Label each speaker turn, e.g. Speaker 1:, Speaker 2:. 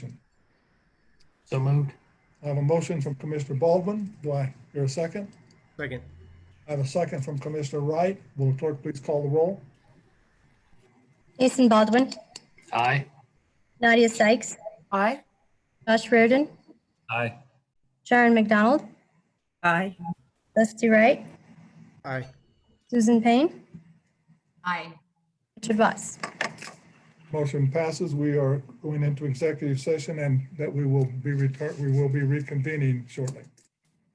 Speaker 1: So moved.
Speaker 2: I have a motion from Commissioner Baldwin. Do I hear a second?
Speaker 3: Second.
Speaker 2: I have a second from Commissioner Wright. Will the clerk please call the roll?
Speaker 4: Jason Baldwin,
Speaker 1: Aye.
Speaker 4: Nadia Sykes,
Speaker 5: Aye.
Speaker 4: Josh Reardon,
Speaker 1: Aye.
Speaker 4: Sharon McDonald,
Speaker 5: Aye.
Speaker 4: Dusty Wright,
Speaker 3: Aye.
Speaker 4: Susan Payne,
Speaker 5: Aye.
Speaker 4: Richard Voss.
Speaker 2: Motion passes. We are going into executive session and that we will be return, we will be reconvening shortly.